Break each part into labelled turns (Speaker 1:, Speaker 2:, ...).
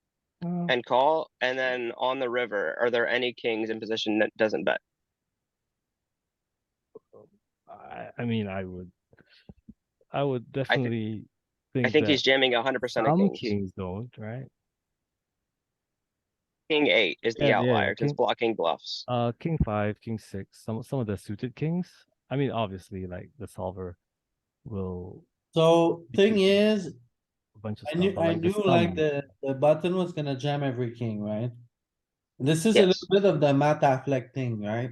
Speaker 1: Uh, Mm-hmm.
Speaker 2: and call, and then on the river, are there any kings in position that doesn't bet?
Speaker 1: I, I mean, I would, I would definitely think.
Speaker 2: I think he's
Speaker 1: that
Speaker 2: jamming a hundred percent of
Speaker 1: some
Speaker 2: kings.
Speaker 1: don't, right?
Speaker 2: King eight is
Speaker 1: Yeah,
Speaker 2: the
Speaker 1: yeah,
Speaker 2: outlier, 'cause it's
Speaker 1: king-
Speaker 2: blocking bluffs.
Speaker 1: Uh, king five, king six, some some of the suited kings. I mean, obviously, like the solver will
Speaker 3: So thing
Speaker 1: Yeah.
Speaker 3: is,
Speaker 1: a bunch of.
Speaker 3: I
Speaker 1: stuff,
Speaker 3: knew,
Speaker 1: but,
Speaker 3: I
Speaker 1: like, the
Speaker 3: knew like
Speaker 1: sum-
Speaker 3: the, the button was gonna jam every king, right? This is a
Speaker 2: Yes.
Speaker 3: little bit of the Matt Affleck thing, right?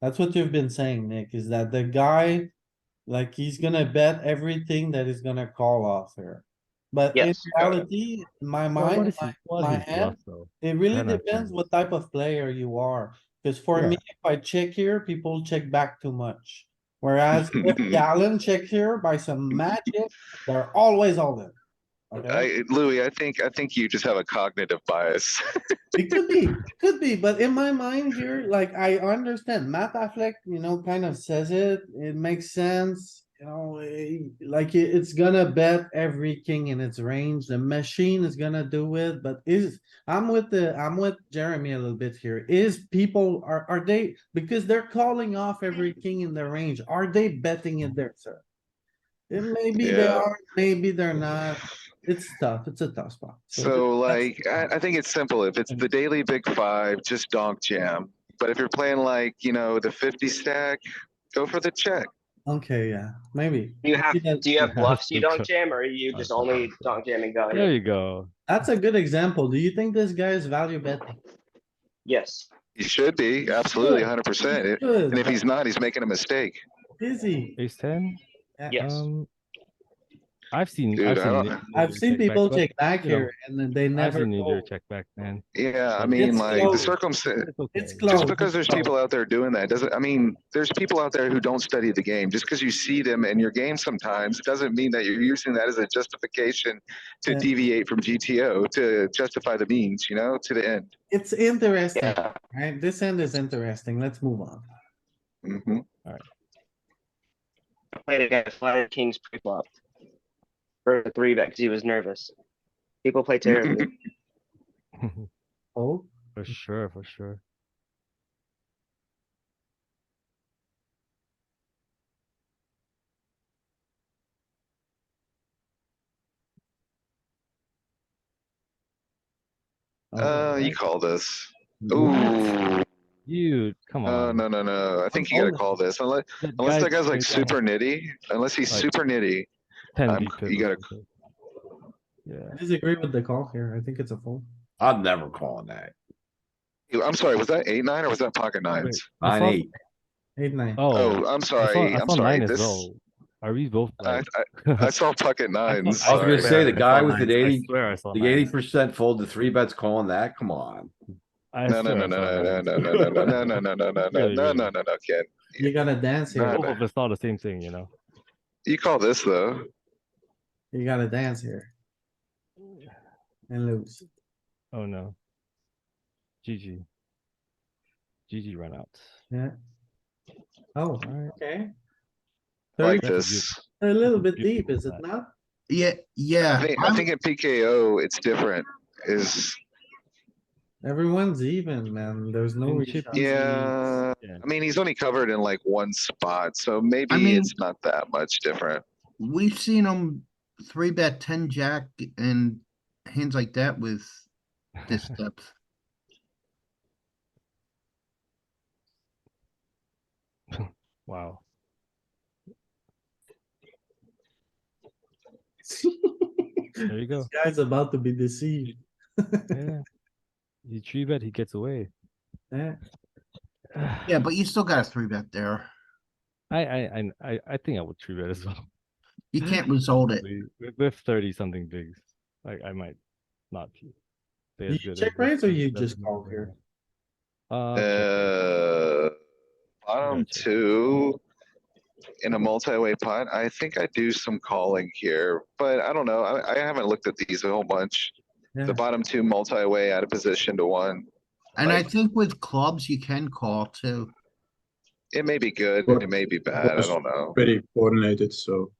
Speaker 3: That's what you've been saying, Nick, is that the guy, like, he's gonna bet everything that he's gonna call off here. But in
Speaker 2: Yes.
Speaker 3: reality, in my
Speaker 1: Well, what
Speaker 3: mind,
Speaker 1: is his- what
Speaker 3: my
Speaker 1: is his bluff,
Speaker 3: hand-
Speaker 1: though?
Speaker 3: it really
Speaker 1: Then I
Speaker 3: depends
Speaker 1: can-
Speaker 3: what type of player you are, cause for me, if I check here, people check back too much. Whereas if Galen check here by some magic, they're always all in. Okay?
Speaker 4: I, Louis, I think, I think you just have a cognitive bias.
Speaker 3: It could be, it could be, but in my mind here, like, I understand Matt Affleck, you know, kind of says it, it makes sense. You know, eh, like, it- it's gonna bet every king in its range, the machine is gonna do it, but is, I'm with the, I'm with Jeremy a little bit here, is people, are, are they, because they're calling off every
Speaker 4: Mm.
Speaker 3: king in their range, are they betting it there, sir? Eh, Maybe they
Speaker 4: Yeah.
Speaker 3: are, maybe they're not, it's tough, it's a tough spot.
Speaker 4: So
Speaker 3: that's-
Speaker 4: like, I, I think it's simple. If it's the daily big five, just donk jam. But if you're playing like, you know, the fifty stack, go for the check.
Speaker 3: Okay, yeah, maybe.
Speaker 2: Do you have,
Speaker 3: Yeah,
Speaker 2: do you have bluffs you
Speaker 1: that's
Speaker 2: don't
Speaker 1: good.
Speaker 2: jam, or are you
Speaker 1: That's
Speaker 2: just only
Speaker 1: good.
Speaker 2: donk jamming value?
Speaker 1: There you go.
Speaker 3: That's a good example. Do you think this guy is value betting?
Speaker 2: Yes.
Speaker 4: You should be, absolutely, hundred percent. And if
Speaker 3: Good,
Speaker 4: he's not, he's making a mistake.
Speaker 3: is he?
Speaker 1: Ace ten.
Speaker 2: Yes.
Speaker 1: Um, I've seen.
Speaker 4: Dude,
Speaker 1: I've
Speaker 4: I
Speaker 1: seen,
Speaker 4: don't-
Speaker 1: Nick
Speaker 3: I've
Speaker 1: Neither
Speaker 3: seen people
Speaker 1: back, but
Speaker 3: check back
Speaker 1: you know,
Speaker 3: here and then they
Speaker 1: I've
Speaker 3: never
Speaker 1: seen neither
Speaker 3: go.
Speaker 1: check back, man.
Speaker 4: Yeah, I
Speaker 1: It's
Speaker 4: mean, like,
Speaker 3: close.
Speaker 4: the circumstance,
Speaker 3: It's
Speaker 1: okay.
Speaker 3: close.
Speaker 4: just because there's
Speaker 3: Oh.
Speaker 4: people out there doing that doesn't, I mean, there's people out there who don't study the game. Just because you see them in your game sometimes doesn't mean that you're using that as a justification to
Speaker 3: Yeah.
Speaker 4: deviate from GTO, to justify the means, you know, to the end.
Speaker 3: It's interesting,
Speaker 4: Yeah.
Speaker 3: right? This end is interesting. Let's move on.
Speaker 4: Mhm.
Speaker 2: Played against flatted kings pre-flop. For a three bet, because he was nervous. People play terribly.
Speaker 3: Oh,
Speaker 1: For sure, for sure.
Speaker 4: Uh, you
Speaker 3: alright.
Speaker 4: call this.
Speaker 3: What?
Speaker 4: Ooh,
Speaker 1: Dude, come
Speaker 4: no,
Speaker 1: on.
Speaker 4: Uh, no, no, no. I think you gotta call this unless,
Speaker 1: That
Speaker 4: unless that guy's like
Speaker 1: right
Speaker 4: super nitty, unless he's
Speaker 1: Like-
Speaker 4: super nitty.
Speaker 1: now, 10
Speaker 4: I'm-
Speaker 1: deep
Speaker 4: you
Speaker 1: in, Yeah.
Speaker 3: I disagree with the call here. I think it's a fold.
Speaker 5: I'm never calling that.
Speaker 4: I'm sorry, was that eight, nine or was that pocket nines?
Speaker 1: I
Speaker 5: Nine,
Speaker 1: thought-
Speaker 5: eight.
Speaker 3: Eight, nine.
Speaker 1: Oh,
Speaker 4: Oh, I'm
Speaker 1: I saw,
Speaker 4: sorry,
Speaker 1: I
Speaker 4: I'm
Speaker 1: saw
Speaker 4: sorry.
Speaker 1: nine as
Speaker 4: This,
Speaker 1: well. Are we both
Speaker 4: I,
Speaker 1: like?
Speaker 4: I, I saw pocket nines,
Speaker 5: I was
Speaker 4: sorry.
Speaker 5: gonna say,
Speaker 1: I
Speaker 5: the guy
Speaker 1: saw
Speaker 5: with the
Speaker 1: nines. I
Speaker 5: 80
Speaker 1: swear I saw
Speaker 5: The
Speaker 1: nines.
Speaker 5: eighty percent fold to three bets calling that, come on.
Speaker 1: I
Speaker 4: No, no,
Speaker 1: swear
Speaker 4: no,
Speaker 1: I saw
Speaker 4: no, no,
Speaker 1: nines.
Speaker 4: no, no, no, no, no, no, no, no, no, no,
Speaker 1: Really,
Speaker 4: no,
Speaker 1: really.
Speaker 4: no, no, no, Ken.
Speaker 3: You gotta dance here.
Speaker 1: Both of us saw the same thing, you know?
Speaker 4: You call this though.
Speaker 3: You gotta dance here. And lose.
Speaker 1: Oh, no. GG. GG run out.
Speaker 3: Oh,
Speaker 1: Alright.
Speaker 3: okay.
Speaker 4: Like
Speaker 1: That's a
Speaker 4: this.
Speaker 3: A
Speaker 1: That's a
Speaker 3: little bit deep,
Speaker 1: beautiful
Speaker 3: is
Speaker 1: bet.
Speaker 3: it not?
Speaker 5: Yeah, yeah.
Speaker 4: I think, I think in PKO, it's different. Is,
Speaker 3: Everyone's even, man. There's no.
Speaker 1: And chip
Speaker 3: reshuffle.
Speaker 1: easy.
Speaker 4: yeah,
Speaker 1: Yeah.
Speaker 4: I mean, he's only covered in like one spot, so maybe
Speaker 6: mean-
Speaker 4: it's not that much different.
Speaker 6: We've seen them three bet ten jack and hands like that with this depth.
Speaker 1: Wow. There you go.
Speaker 3: This guy's about to be deceived.
Speaker 1: Yeah. He three bet, he gets away.
Speaker 3: Eh,
Speaker 6: Yeah, but you still got a three bet there.
Speaker 1: I, I, I- I, I think I would three bet as well.
Speaker 6: You can't resolve it.
Speaker 1: With- With, with thirty something bigs, like I might not. be as
Speaker 3: You
Speaker 1: good as
Speaker 3: check
Speaker 1: the
Speaker 3: raise or
Speaker 1: first
Speaker 3: you
Speaker 1: seven
Speaker 3: just call
Speaker 1: there.
Speaker 3: here?
Speaker 1: Uh, check raise.
Speaker 4: Uh, bottom
Speaker 1: Gotcha.
Speaker 4: two in a multi-way pot, I think I do some calling here, but I don't know. I, I haven't looked at these a whole bunch.
Speaker 3: Yeah.
Speaker 4: The bottom two multi-way out of position to one.
Speaker 6: And I think with clubs, you can call too.
Speaker 4: It may be good, it may be bad, I don't know.
Speaker 7: pretty coordinated, so.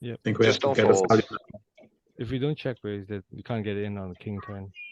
Speaker 1: Yep.
Speaker 7: I think we
Speaker 4: Just
Speaker 7: have to
Speaker 4: don't
Speaker 7: get a
Speaker 4: fold.
Speaker 7: value.
Speaker 1: if we don't check raise, that we can't get in on the king turn.